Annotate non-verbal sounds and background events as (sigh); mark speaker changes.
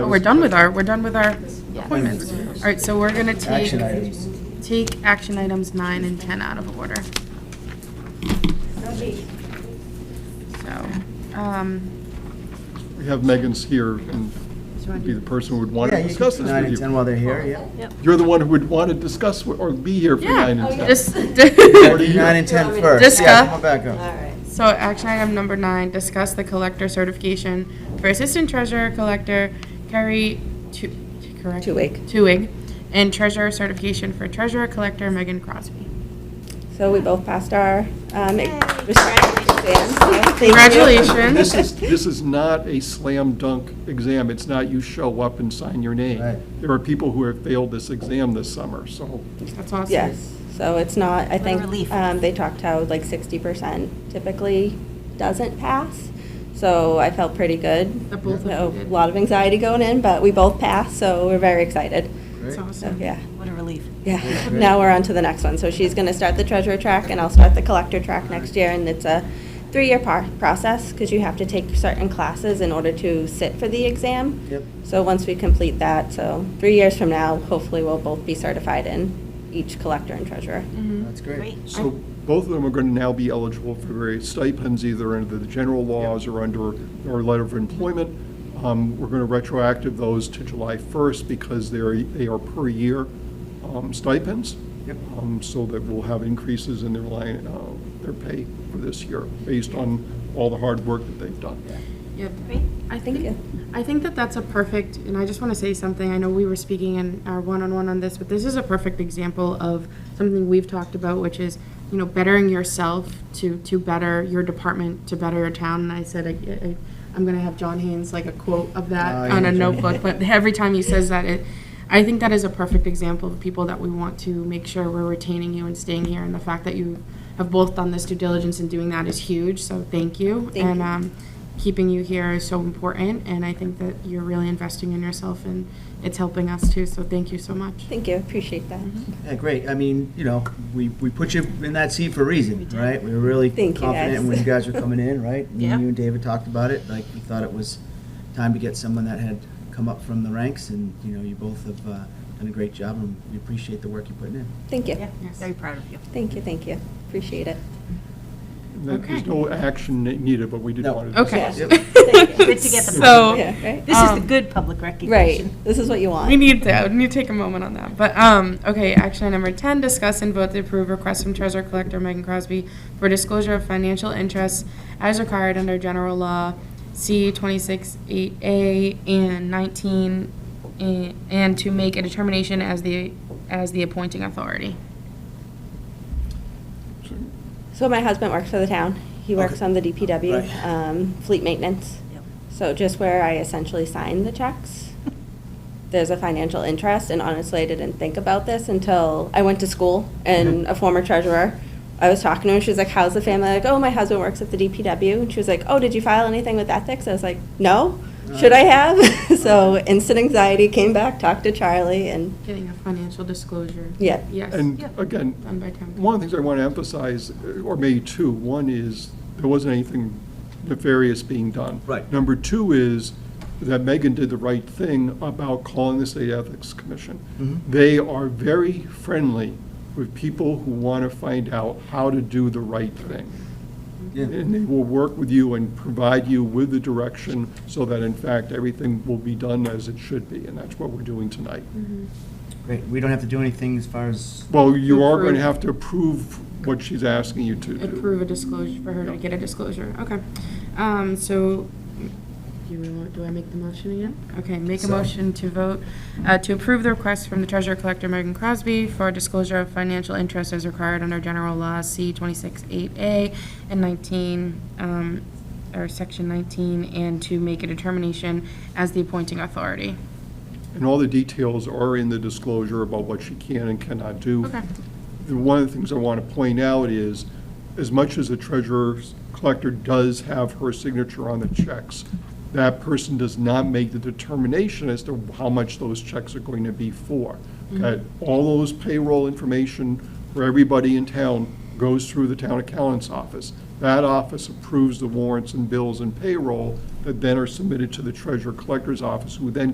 Speaker 1: We're done with our, we're done with our appointments. All right, so we're going to take,
Speaker 2: Action items.
Speaker 1: take action items nine and 10 out of order. So, um,
Speaker 3: We have Megan's here and would be the person who would want
Speaker 2: Yeah,
Speaker 3: to
Speaker 2: you
Speaker 3: discuss
Speaker 2: can-
Speaker 3: this
Speaker 2: Nine and
Speaker 3: with
Speaker 2: 10
Speaker 3: you.
Speaker 2: while they're here, yeah.
Speaker 3: You're the one who would want to discuss wi- or be here for
Speaker 1: yeah, Oh,
Speaker 3: nine and 10.
Speaker 1: dis-
Speaker 3: do you-
Speaker 2: Nine and 10 first.
Speaker 1: Discuss-
Speaker 2: Yeah, come on back
Speaker 4: All
Speaker 2: up.
Speaker 4: right.
Speaker 1: (laughs) So action item number nine, discuss the collector certification for Assistant Treasurer Collector Carrie Tu- correct?
Speaker 4: Tuig.
Speaker 1: Tuig, and Treasurer certification for Treasurer Collector Megan Crosby.
Speaker 4: So we both passed our um, respective exams. so thank you.
Speaker 3: This
Speaker 1: Congratulations.
Speaker 3: is, this is not a slam dunk exam. It's not you show up and sign your name.
Speaker 2: Right.
Speaker 3: There are people who have failed this exam this summer, so
Speaker 1: That's awesome.
Speaker 4: Yes, so it's not, I think, um, they talked how like 60% typically doesn't pass. So I felt pretty good.
Speaker 1: That both of you
Speaker 4: So,
Speaker 1: did.
Speaker 4: A lot of anxiety going in, but we both passed, so we're very excited.
Speaker 1: That's
Speaker 2: Great.
Speaker 4: So,
Speaker 1: awesome.
Speaker 4: yeah,
Speaker 5: What a relief.
Speaker 4: yeah. (laughs) Now we're on to the next one. So she's going to start the treasurer track and I'll start the collector track next year. And it's a three-year par- process because you have to take certain classes in order to sit for the exam.
Speaker 2: Yep.
Speaker 4: So once we complete that, so three years from now, hopefully we'll both be certified in each collector and treasurer.
Speaker 5: Mm-hmm.
Speaker 2: That's great.
Speaker 5: Great.
Speaker 3: So both of them are going to now be eligible for various stipends, either under the general laws or under our letter of employment. Um, We're going to retroactive those to July 1st because they're, they are per year um, stipends.
Speaker 2: Yep.
Speaker 3: Um, So that we'll have increases in their line, uh, their pay for this year, based on all the hard work that they've done.
Speaker 1: Yep.
Speaker 5: Great.
Speaker 1: I
Speaker 4: Thank
Speaker 1: think,
Speaker 4: you.
Speaker 1: I think that that's a perfect, and I just want to say something, I know we were speaking in our one-on-one on this, but this is a perfect example of something we've talked about, which is, you know, bettering yourself to, to better your department, to better your town, and I said, I- I- I'm going to have John Haynes, like, a quote of
Speaker 2: Oh,
Speaker 1: that
Speaker 2: yeah,
Speaker 1: on a
Speaker 2: John.
Speaker 1: notebook, but every time he says that, it, I think that is a perfect example of people that we want to make sure we're retaining you and staying here, and the fact that you have both done this due diligence in doing that is huge, so thank you.
Speaker 4: Thank
Speaker 1: And,
Speaker 4: you.
Speaker 1: um, keeping you here is so important, and I think that you're really investing in yourself, and it's helping us too, so thank you so much.
Speaker 4: Thank you, appreciate that.
Speaker 5: Mm-hmm.
Speaker 2: Yeah, great. I mean, you know, we, we put you in that seat for a reason, right? We were really
Speaker 4: Thank you,
Speaker 2: confident
Speaker 4: guys.
Speaker 2: when you guys were coming in, right? Me,
Speaker 5: Yeah.
Speaker 2: You and David talked about it, like, we thought it was time to get someone that had come up from the ranks, and, you know, you both have uh, done a great job, and we appreciate the work you're putting in.
Speaker 4: Thank you,
Speaker 5: Yeah, very proud of you.
Speaker 4: thank you, thank you, appreciate it.
Speaker 3: And that- There's
Speaker 1: Okay.
Speaker 3: no action needed, but we did
Speaker 2: No.
Speaker 3: want to.
Speaker 1: Okay.
Speaker 2: Yep.
Speaker 1: (laughs)
Speaker 4: Thank you.
Speaker 5: Good to (laughs) get the
Speaker 1: So-
Speaker 5: public.
Speaker 4: Yeah, right?
Speaker 5: This is the
Speaker 1: Um,
Speaker 5: good public
Speaker 4: Right,
Speaker 5: recognition.
Speaker 4: this is what you
Speaker 1: We
Speaker 4: want.
Speaker 1: need to, we need to take a moment on that, but, um, okay, action item number ten, discuss and vote to approve request from Treasurer Collector Megan Crosby for disclosure of financial interests as required under general law C twenty-six eight A and nineteen, eh, and to make a determination as the, as the appointing authority.
Speaker 4: So my husband works for the town, he works
Speaker 2: Okay.
Speaker 4: on the
Speaker 2: Right.
Speaker 4: DPW, um, fleet maintenance.
Speaker 5: Yep.
Speaker 4: So just where I essentially sign the checks, there's a financial interest, and honestly, I didn't think about this until I went to school, and
Speaker 2: Mm-hmm.
Speaker 4: a former treasurer, I was talking to her, and she was like, how's the family? Like, oh, my husband works at the DPW, and she was like, oh, did you file anything with ethics? I was like, no, should I have? (laughs) So instant anxiety, came back, talked to Charlie, and,
Speaker 1: Getting a financial disclosure.
Speaker 4: yeah,
Speaker 1: Yes.
Speaker 3: And
Speaker 5: Yeah.
Speaker 3: again,
Speaker 1: Done by town.
Speaker 3: One of the things I want to emphasize, or maybe two, one is, there wasn't anything nefarious being done.
Speaker 2: Right.
Speaker 3: Number two is that Megan did the right thing about calling the State Ethics
Speaker 2: Mm-hmm.
Speaker 3: Commission. They are very friendly with people who want to find out how to do the right thing.
Speaker 2: Yeah.
Speaker 3: And they will work with you and provide you with the direction so that in fact, everything will be done as it should be, and that's what we're doing tonight.
Speaker 2: Great. We don't have to do anything as far as,
Speaker 3: Well, you are
Speaker 1: Approve.
Speaker 3: going to have to approve what she's asking you to do.
Speaker 1: Approve a disclosure, for her to get a disclosure, okay. Um, so, do we want- do I make the motion again? Okay, make a
Speaker 2: So-
Speaker 1: motion to vote, uh, to approve the request from the Treasurer Collector Megan Crosby for disclosure of financial interest as required under General Law C twenty-six eight A and nineteen, um, or section nineteen, and to make a determination as the appointing authority.
Speaker 3: And all the details are in the disclosure about what she can and cannot do.
Speaker 1: Okay.
Speaker 3: And one of the things I want to point out is, as much as the treasurer's collector does have her signature on the checks, that person does not make the determination as to how much those checks are going to be for. Okay, all those payroll information for everybody in town goes through the town accountant's office. That office approves the warrants and bills and payroll that then are submitted to the treasurer collector's office, who then